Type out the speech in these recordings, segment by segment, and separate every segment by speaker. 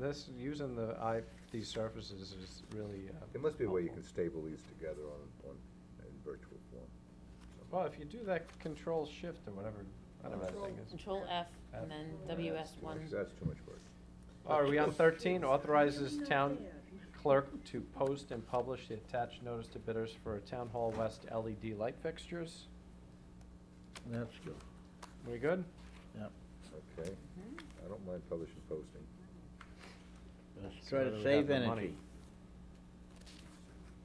Speaker 1: this, using the, I, these surfaces is really. uh,
Speaker 2: There must be a way you
Speaker 1: helpful.
Speaker 2: can stable these together on, on, in virtual form. somehow.
Speaker 1: Well, if you do that control shift or whatever, I don't know what that thing is.
Speaker 3: Control F
Speaker 1: F.
Speaker 3: and then
Speaker 2: That's too
Speaker 3: WS
Speaker 2: much-
Speaker 3: one.
Speaker 2: That's too much work.
Speaker 1: Oh, Are we on thirteen, authorizes town clerk to post and publish the attached notice to bidders for Town Hall West LED light fixtures?
Speaker 4: That's good,
Speaker 1: We good?
Speaker 4: yeah.
Speaker 2: Okay,
Speaker 3: Mhm.
Speaker 2: I don't mind publishing posting.
Speaker 4: Let's
Speaker 1: So
Speaker 4: try
Speaker 1: where do
Speaker 4: to
Speaker 1: we
Speaker 4: save
Speaker 1: have the money?
Speaker 4: energy.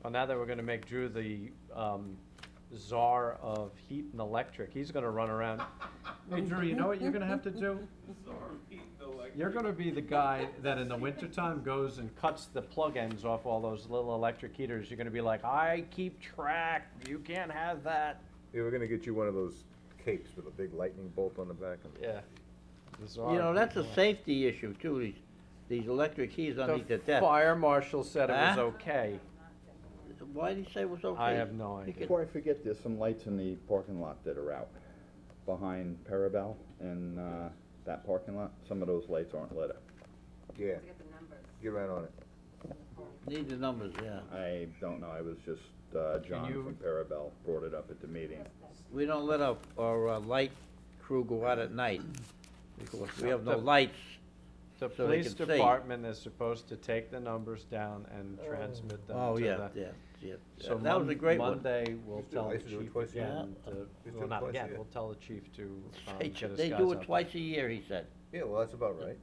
Speaker 1: Well, now that we're gonna make Drew the, um, czar of heat and electric, he's gonna run around. Hey Drew, you know what you're gonna have to do? You're gonna be the guy that in the wintertime goes and cuts the plug ends off all those little electric heaters. You're gonna be like, I keep track, you can't have that.
Speaker 2: Yeah, we're gonna get you one of those capes with a big lightning bolt on the back and.
Speaker 1: Yeah. The czar
Speaker 4: You know,
Speaker 1: of
Speaker 4: that's
Speaker 1: heat
Speaker 4: a
Speaker 1: and elec-
Speaker 4: safety issue too, these, these electric keys underneath the
Speaker 1: The
Speaker 4: desk.
Speaker 1: fire marshal said it was
Speaker 4: Huh?
Speaker 1: okay.
Speaker 4: Why did he say it was okay?
Speaker 1: I have no
Speaker 4: He
Speaker 1: idea.
Speaker 4: could-
Speaker 5: Before I forget, there's some lights in the parking lot that are out behind Parabel and, uh, that parking lot. Some of those lights aren't lit up.
Speaker 2: Yeah, get right on it.
Speaker 4: Need the numbers, yeah.
Speaker 5: I don't know, I was just, uh, John
Speaker 1: you-
Speaker 5: from Parabel brought it up at the meeting.
Speaker 4: We don't let our, our uh, light crew go out at night, because we have no
Speaker 1: The-
Speaker 4: lights.
Speaker 1: The
Speaker 4: so they
Speaker 1: police
Speaker 4: can see.
Speaker 1: department is supposed to take the numbers down and transmit them
Speaker 4: Oh,
Speaker 1: to
Speaker 4: yeah,
Speaker 1: the.
Speaker 4: yeah, yeah.
Speaker 1: So
Speaker 4: That was a
Speaker 1: Mon-
Speaker 4: great one.
Speaker 1: Monday, we'll
Speaker 2: Used to-
Speaker 1: tell
Speaker 2: I
Speaker 1: the
Speaker 2: used to do it
Speaker 1: chief
Speaker 2: twice a year.
Speaker 1: again, to-
Speaker 2: Used to do
Speaker 1: well,
Speaker 2: it
Speaker 1: not
Speaker 2: twice a
Speaker 1: again,
Speaker 2: year.
Speaker 1: we'll tell the chief to, um,
Speaker 4: They
Speaker 1: get his
Speaker 4: ju-
Speaker 1: guys
Speaker 4: They do
Speaker 1: out
Speaker 4: it twice a year, he said.
Speaker 2: Yeah, well, that's about right.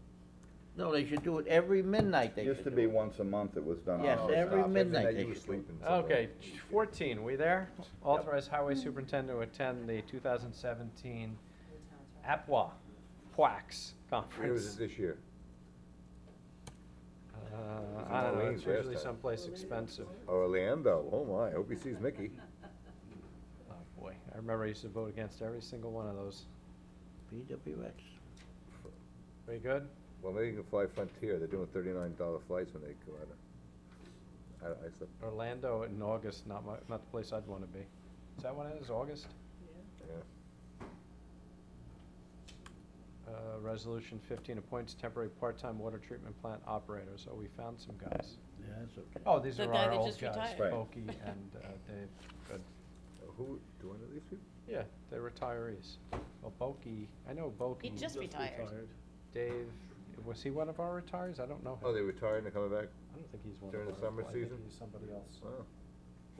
Speaker 4: No, they should do it every midnight, they
Speaker 5: Used
Speaker 4: should
Speaker 5: to
Speaker 4: do
Speaker 5: be
Speaker 4: it.
Speaker 5: once a month it was done. on
Speaker 4: Yes,
Speaker 2: Oh,
Speaker 5: our
Speaker 4: every
Speaker 5: stop.
Speaker 4: midnight
Speaker 2: Every night
Speaker 4: they
Speaker 2: you were
Speaker 4: should do it.
Speaker 2: sleeping. so-
Speaker 1: Okay, ch- fourteen, we there? Authorize highway superintendent to attend the two thousand seventeen APWA, PWAX
Speaker 2: Where was
Speaker 1: conference.
Speaker 2: it this year?
Speaker 1: Uh,
Speaker 2: was
Speaker 1: I don't know,
Speaker 2: Orleans
Speaker 1: it's
Speaker 2: last
Speaker 1: usually
Speaker 2: time.
Speaker 1: someplace expensive.
Speaker 2: Orlando, oh my, I hope he sees Mickey.
Speaker 1: Oh, boy, I remember I used to vote against every single one of those.
Speaker 4: PWX.
Speaker 1: Very good?
Speaker 2: Well, maybe you can fly Frontier, they're doing thirty-nine dollar flights when they go out of. I, don't- I slept,
Speaker 1: Orlando in August, not my, not the place I'd wanna be. Is that when it is, August?
Speaker 2: yeah.
Speaker 1: Uh, Resolution 15 appoints temporary part-time water treatment plant operators. Oh, we found some guys.
Speaker 4: Yeah, that's okay.
Speaker 1: Oh, these
Speaker 3: The
Speaker 1: are
Speaker 3: guy
Speaker 1: our
Speaker 3: that
Speaker 1: old
Speaker 3: just
Speaker 1: guys,
Speaker 3: retired.
Speaker 5: Right.
Speaker 1: Bokey and uh, Dave. Good.
Speaker 2: Uh, Who, do I know these people?
Speaker 1: Yeah, they're retirees. Well, Bokey, I know Bokey.
Speaker 3: He just retired.
Speaker 1: Dave, was he one of our retirees? I don't know
Speaker 2: Oh,
Speaker 1: him.
Speaker 2: they retired and they're coming back?
Speaker 1: I don't think he's one of
Speaker 2: during the
Speaker 1: ours.
Speaker 2: summer
Speaker 1: I think
Speaker 2: season?
Speaker 1: he's somebody else.
Speaker 2: Wow.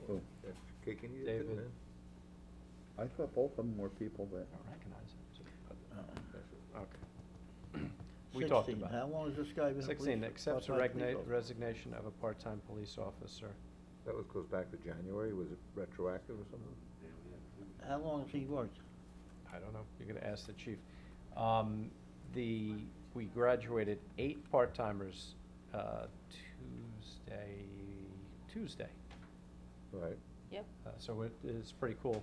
Speaker 5: Cool.
Speaker 2: That's kicking you, isn't
Speaker 1: David.
Speaker 2: it?
Speaker 5: Oh, I thought both of them were people that.
Speaker 1: I don't recognize him.
Speaker 4: Uh-uh.
Speaker 1: Okay. We talked
Speaker 4: 16.
Speaker 1: about it.
Speaker 4: How long has this guy been a police?
Speaker 1: Sixteen, accepts the
Speaker 4: part-time police
Speaker 1: regna-
Speaker 4: officer?
Speaker 1: resignation of a part-time police officer.
Speaker 2: That was, goes back to January, was it retroactive or something?
Speaker 4: How long has he worked?
Speaker 1: I don't know, you're gonna ask the chief. Um, the, we graduated eight part-timers, uh, Tuesday, Tuesday.
Speaker 2: Right.
Speaker 3: Yep.
Speaker 1: Uh, so it is pretty cool.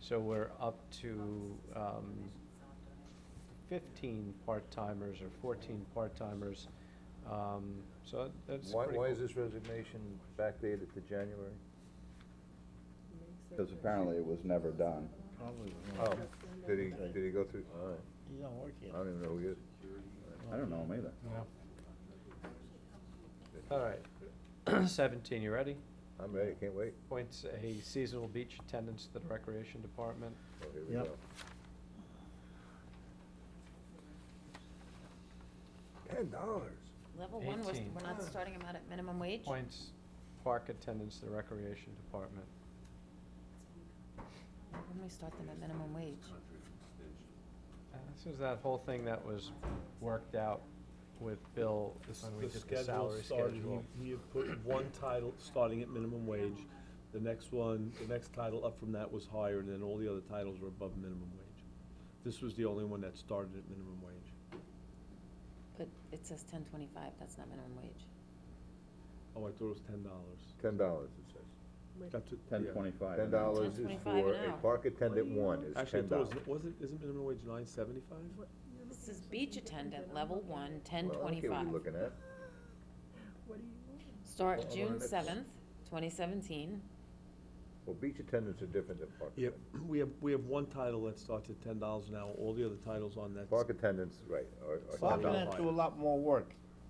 Speaker 1: So we're up to, um, fifteen part-timers or fourteen part-timers. Um, so that's
Speaker 2: Why,
Speaker 1: pretty
Speaker 2: why is
Speaker 1: cool.
Speaker 2: this resignation backdated to January?
Speaker 5: Because apparently it was never done.
Speaker 4: Probably.
Speaker 2: Oh, did he, did he go through, all right,
Speaker 4: He don't work yet.
Speaker 2: I don't even know who he is.
Speaker 5: I don't know them either.
Speaker 1: All right, seventeen, you ready?
Speaker 2: I'm ready, can't wait.
Speaker 1: Appoints a seasonal beach attendant to the recreation department.
Speaker 2: Oh, here we
Speaker 4: Yep.
Speaker 2: go. Ten dollars.
Speaker 3: Level one, we're, s-
Speaker 1: 18.
Speaker 3: we're
Speaker 2: Oh.
Speaker 3: not starting him out at minimum wage?
Speaker 1: Appoints park attendants to the recreation department.
Speaker 3: When we start them at minimum wage?
Speaker 1: Uh, This is that whole thing that was worked out with Bill
Speaker 6: This-
Speaker 1: when we
Speaker 6: the
Speaker 1: did the salary
Speaker 6: started, he-
Speaker 1: schedule.
Speaker 6: He had put one title, starting at minimum wage, the next one, the next title up from that was higher, and then all the other titles were above minimum wage. This was the only one that started at minimum wage.
Speaker 3: But it says ten twenty-five, that's not minimum wage.
Speaker 6: Oh, I thought it was ten dollars.
Speaker 2: Ten dollars, it says.
Speaker 6: That's it,
Speaker 5: Ten
Speaker 6: yeah.
Speaker 5: twenty-five.
Speaker 2: Ten dollars is
Speaker 3: 10.25
Speaker 2: for
Speaker 3: an
Speaker 2: a
Speaker 3: hour.
Speaker 2: park attendant one is
Speaker 6: Actually, I
Speaker 2: ten
Speaker 6: thought
Speaker 2: dollars.
Speaker 6: it was, was it, isn't minimum wage nine seventy-five?
Speaker 3: This is beach attendant, level one, ten
Speaker 2: Well, I don't care
Speaker 3: twenty-five.
Speaker 2: what you're looking at.
Speaker 3: Start
Speaker 2: Well,
Speaker 3: June
Speaker 2: that's-
Speaker 3: seventh, twenty seventeen.
Speaker 2: Well, beach attendants are different than park
Speaker 6: Yep,
Speaker 2: attendants.
Speaker 6: we have, we have one title that starts at ten dollars an hour, all the other titles on that.
Speaker 2: Park attendants, right, are, are
Speaker 6: Park
Speaker 2: ten
Speaker 4: Bob's
Speaker 2: dollars.
Speaker 4: gonna do a lot more work